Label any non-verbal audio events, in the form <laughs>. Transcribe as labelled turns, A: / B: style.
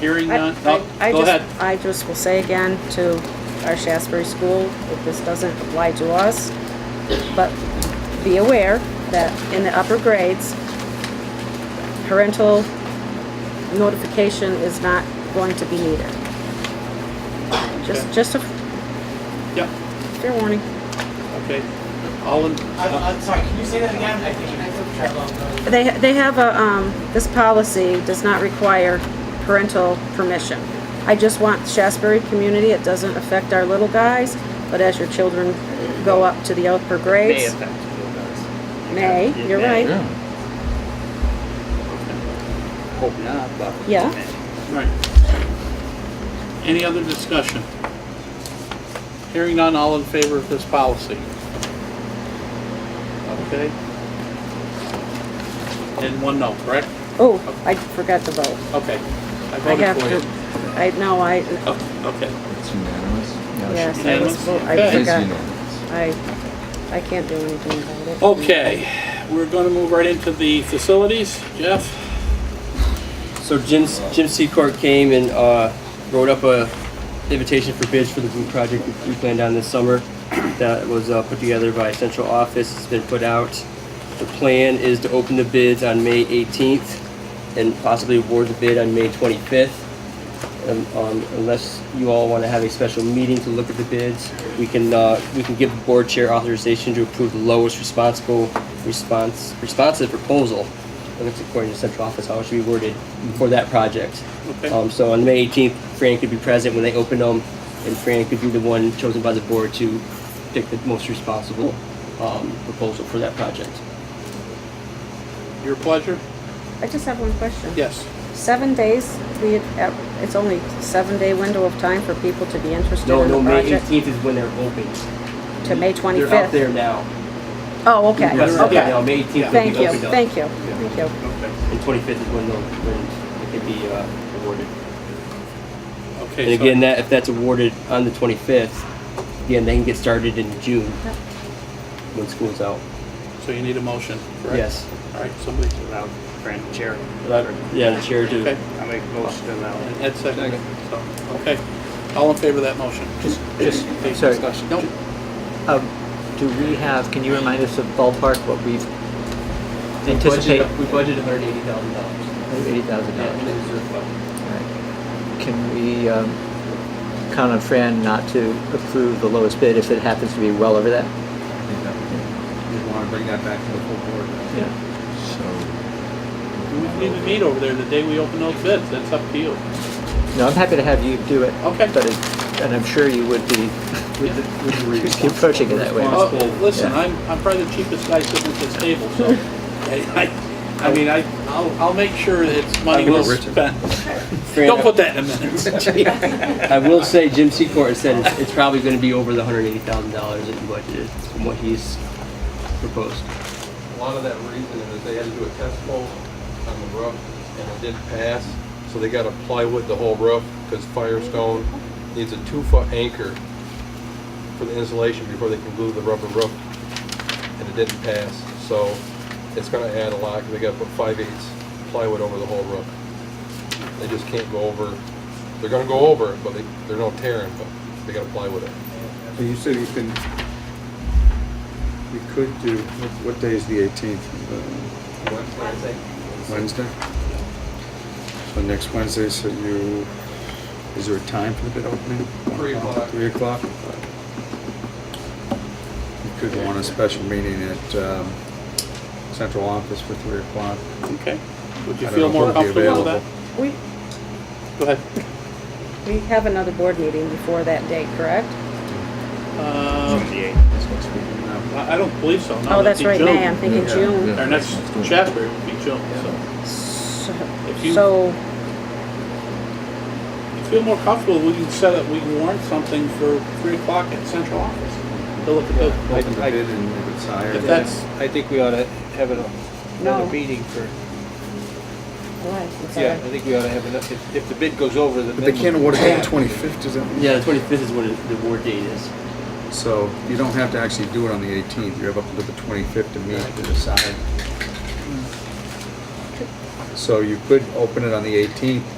A: Hearing
B: I-
A: none,
B: I-
A: no,
B: I
A: go
B: just-
A: ahead.
B: I just will say again to our Shasbury School, if this doesn't apply to us, but be aware that in the upper grades, parental notification is not going to be needed. Just,
A: Okay.
B: just a
A: Yep,
B: fair warning.
A: okay. All in, uh,
C: I'm, I'm sorry, can you say that again? I think I took trouble.
B: They, they have a, um, this policy does not require parental permission. I just want Shasbury community, it doesn't affect our little guys, but as your children go up to the upper
D: May
B: grades,
D: affect you guys.
B: May,
D: It
B: you're
D: may.
B: right.
D: Hope not, but. it
B: Yeah.
D: may.
A: right. Any other discussion? Hearing none, all in favor of this policy? Okay. And one no, correct?
B: Oh, I forgot to vote.
A: Okay. I
B: I
A: voted
B: have
A: for you.
B: to, I, no, I,
A: Oh, Okay,
E: It's unanimous?
D: Oh,
E: No, it's-
B: yes, I
A: Unanimous?
B: was, vo- I
A: Okay.
E: It is
B: forgot.
E: unanimous.
B: I, I can't do anything about it.
A: okay. We're gonna move right into the facilities. Jeff?
F: So Jim Jim Secord came and uh, wrote up a invitation for bids for the boot project we planned on this summer. That was uh, put together by central office. It's been put out. The plan is to open the bids on May 18th and possibly award the bid on May 25th. Um, um, unless you all want to have a special meeting to look at the bids, we can uh, we can give the board chair authorization to approve the lowest responsible response responsive proposal. And that's according to central office how it should be worded for that project.
A: Okay.
F: Um, so on May 18th, Fran could be present when they open them, and Fran could be the one chosen by the board to pick the most responsible um, proposal for that project.
A: Your pleasure?
B: I just have one question.
A: Yes.
B: Seven days, we, had- it's only seven-day window of time for people to be interested
F: No,
B: in
F: no,
B: the
F: May
B: project.
F: 18th is when they're open.
B: To May 25th?
F: They're out there now.
B: Oh, okay,
F: Yes, they're out
B: okay.
F: now. May 18th. they'll be
B: Thank you,
F: opened up.
B: thank you, thank you.
A: Okay.
F: And 25th is when they'll, when it can be uh, awarded.
A: Okay.
F: And
A: so-
F: again, that if that's awarded on the 25th, again, they can get started in June when school's out.
A: So you need a motion, correct?
F: Yes.
A: All right, somebody,
D: Without Fran, chair.
F: Yeah, the chair to.
A: okay,
D: I make a motion to allow.
A: and Ed seconded, so, okay. All in favor of that motion?
C: Just, just,
A: Any
C: sorry.
A: discussion? Nope.
C: Um, do we have, can you remind us of ballpark what we've
F: We
C: anticipate?
F: budgeted- We budgeted $180,000.
C: Eighty thousand
F: Yeah, in the
C: dollars.
F: reserve fund.
C: Can we, um, count on Fran not to approve the lowest bid if it happens to be well over that?
E: I think that we- we want to bring that back to the full board.
C: Yeah.
E: So,
A: We need to meet over there the day we open those bids, that's up to you.
C: No, I'm happy to have you do it.
A: Okay.
C: But it, and I'm sure you would be
A: Yeah.
C: <laughs> approaching it that way.
A: Oh, Listen,
C: Yeah.
A: I'm, I'm probably the cheapest guy sitting at this table, so,
C: <laughs>
A: I, I I mean, I, I'll, I'll make sure it's money
F: I will,
A: well
E: Richard.
C: <laughs>
A: spent.
F: Fran,
A: Don't put that in a minute.
F: I will say Jim Secor has said it's- it's probably going to be over the $180,000 that you budgeted from what he's proposed.
G: A lot of that reason is they had to do a test hole on the roof, and it didn't pass, so they gotta plywood the whole roof, because Firestone needs a two-foot anchor for the insulation before they can glue the rubber roof, and it didn't pass, so it's gonna add a lot, 'cause they gotta put five-eighths plywood over the whole roof. They just can't go over, they're gonna go over it, but they, they're no tearing, but they gotta plywood it.
E: so you said you can, we could do, what- what day is the 18th? Uh, Wednesday? So next Wednesday, so you, is there a time for the bid opening?
G: Three o'clock.
E: Three o'clock? You could want a special meeting at um, central office for three o'clock.
A: Okay, would you
E: I don't
A: feel
E: know
A: more
E: if it'll be
A: comfortable with that?
E: available.
B: We,
A: Go ahead.
B: we have another board meeting before that date, correct? Oh,
A: Uh,
D: Twenty eight.
E: That's next week. No.
A: I I don't believe so, no,
B: Oh,
A: that'd
B: that's
A: be
B: right,
A: June.
B: May, I'm thinking
E: Yeah.
B: June.
E: Yeah.
A: Our next chapter would be June, so. If you-
B: So,
A: If you feel more comfortable, we can set up, we can warrant something for three o'clock at central office. To look at the,
E: Open the bid and if it's higher.
A: if
E: then-
A: that's,
H: I think we ought to have an-
B: No.
H: another meeting for,
B: why? I'm sorry.
H: yeah, I think we ought to have enough, if, if the bid goes over the
E: But they
H: minimum.
E: can't award it till the twenty-fifth, does that?
F: Yeah, the 25th is when the award date is.
E: So you don't have to actually do it on the eighteenth, you have up until the twenty-fifth to meet to decide. So you could open it on the eighteenth